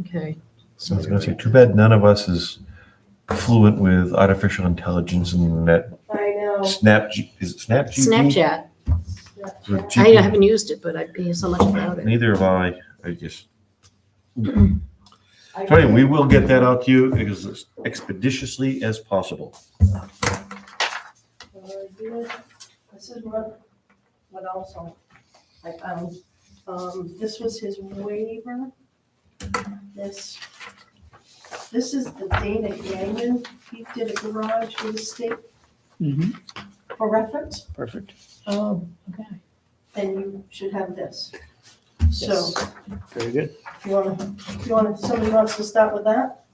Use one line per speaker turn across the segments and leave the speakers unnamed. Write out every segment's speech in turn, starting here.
Okay.
So I was going to say, too bad none of us is fluent with artificial intelligence and that
I know.
Snap, G- is it Snap? GP?
Snapchat.
Or
Snapchat.
I
GP?
haven't used it, but I hear so much about it.
Neither have I. I just,
I
so anyway, we will get that out to you as expeditiously as possible.
Uh, you know, This is what, what also I found, um, this was his waiver. This, this is the Dana Gagnon, he did a garage with the state
Mhm.
for reference,
Perfect.
Mm-hmm. Oh, okay.
and you should have this. So,
Yes. Very good.
you wanna, you wanna, somebody wants to start with that?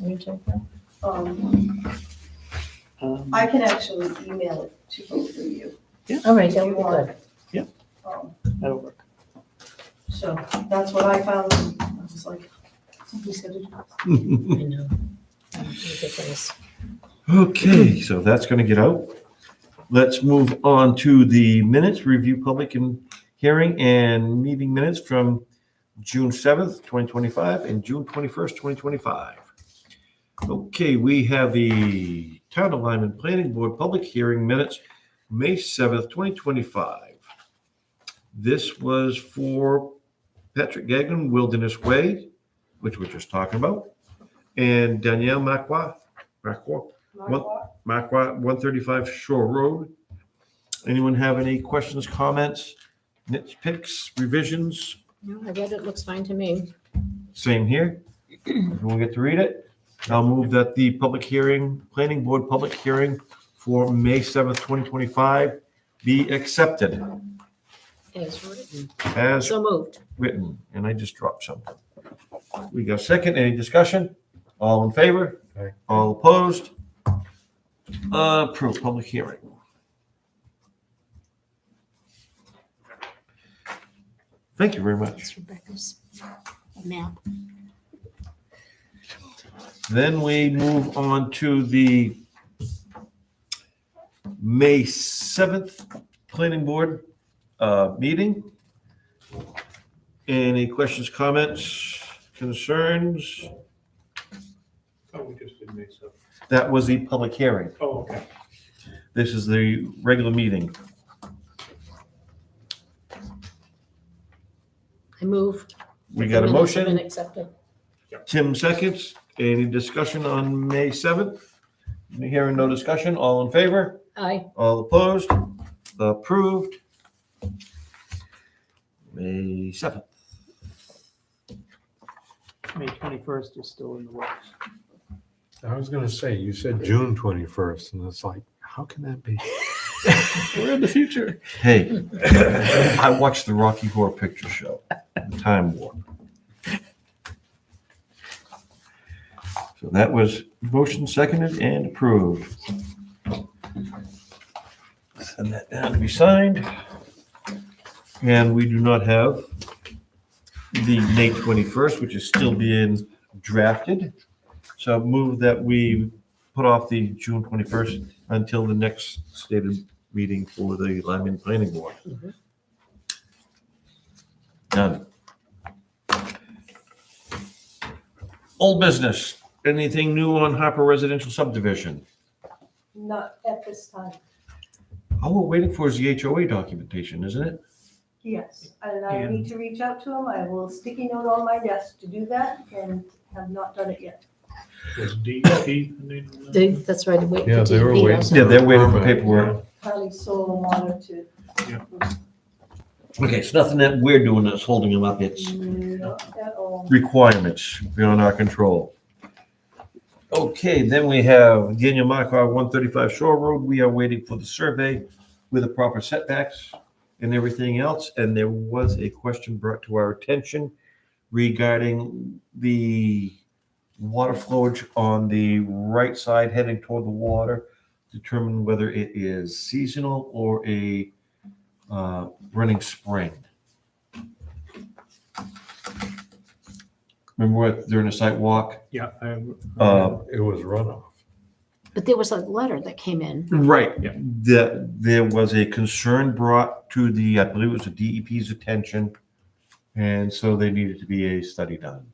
Let me take that.
Um,
Um,
I can actually email it to both of you.
All right,
if
that
you
would be
want.
good.
Um,
That'll work.
So that's what I found. I was like, somebody's gotta do this.
I know. Ridiculous.
Okay, so that's going to get out. Let's move on to the minutes, review public and hearing and meeting minutes from June 7th, 2025 and June 21st, 2025. Okay, we have the Town of Lyman Planning Board Public Hearing Minutes, May 7th, 2025. This was for Patrick Gagnon Wilderness Way, which we're just talking about, and Danielle Macqua, Macqua, What?
Marquardt?
Macquat, 135 Shore Road. Anyone have any questions, comments, nitpicks, revisions?
No, I read it, looks fine to me.
Same here. Everyone get to read it? I'll move that the public hearing, planning board public hearing for May 7th, 2025 be accepted
It's written.
as
So moved.
written. And I just dropped something. We got a second. Any discussion? All in favor? All opposed? Approved, public hearing. Thank you very much.
That's Rebecca's map.
Then we move on to the May 7th Planning Board uh, meeting. Any questions, comments, concerns?
Oh, we just did May seventh.
That was the public hearing.
Oh, okay.
This is the regular meeting.
I move.
We got a
The minutes have Been
motion.
accepted.
Tim seconds. Any discussion on May 7th? Hearing no discussion. All in favor?
Aye.
All opposed? Approved. May 7th.
May 21st is still in the works.
I was going to say, you said June 21st, and it's like, how can that be?
We're in the future.
Hey, I watched the Rocky Horror Picture Show, The Time Warp. So that was motion seconded and approved. Send that down to be signed. And we do not have the May 21st, which is still being drafted. So move that we put off the June 21st until the next stated meeting for the Lyman Planning Board.
Mhm.
Done. Old business, anything new on Hopper Residential Subdivision?
Not at this time.
All Oh, we're waiting for is the HOA documentation, isn't it?
Yes, and I
And-
need to reach out to him. I will sticky note on my desk to do that and have not done it yet.
Was DEP the name of that?
They, that's right. wait for
Yeah, they were
DEP
waiting.
also.
Yeah, they're waiting for
Permit,
paperwork.
Probably solar monitor.
Yeah.
Okay, it's nothing that we're doing that's holding them up, it's
Not at all.
requirements beyond our control. Okay, then we have Daniel Markar, one thirty-five Shore Road. We are waiting for the survey with the proper setbacks and everything else. And there was a question brought to our attention regarding the water flowage on the right side heading toward the water. Determine whether it is seasonal or a uh, running spring. Remember what- during the site walk?
Yeah, I,
Uh,
It was runoff.
But there was a letter that came in.
Right.
Yeah.
There, there was a concern brought to the, E I believe it was the DEP's attention. And so they needed to be a study done.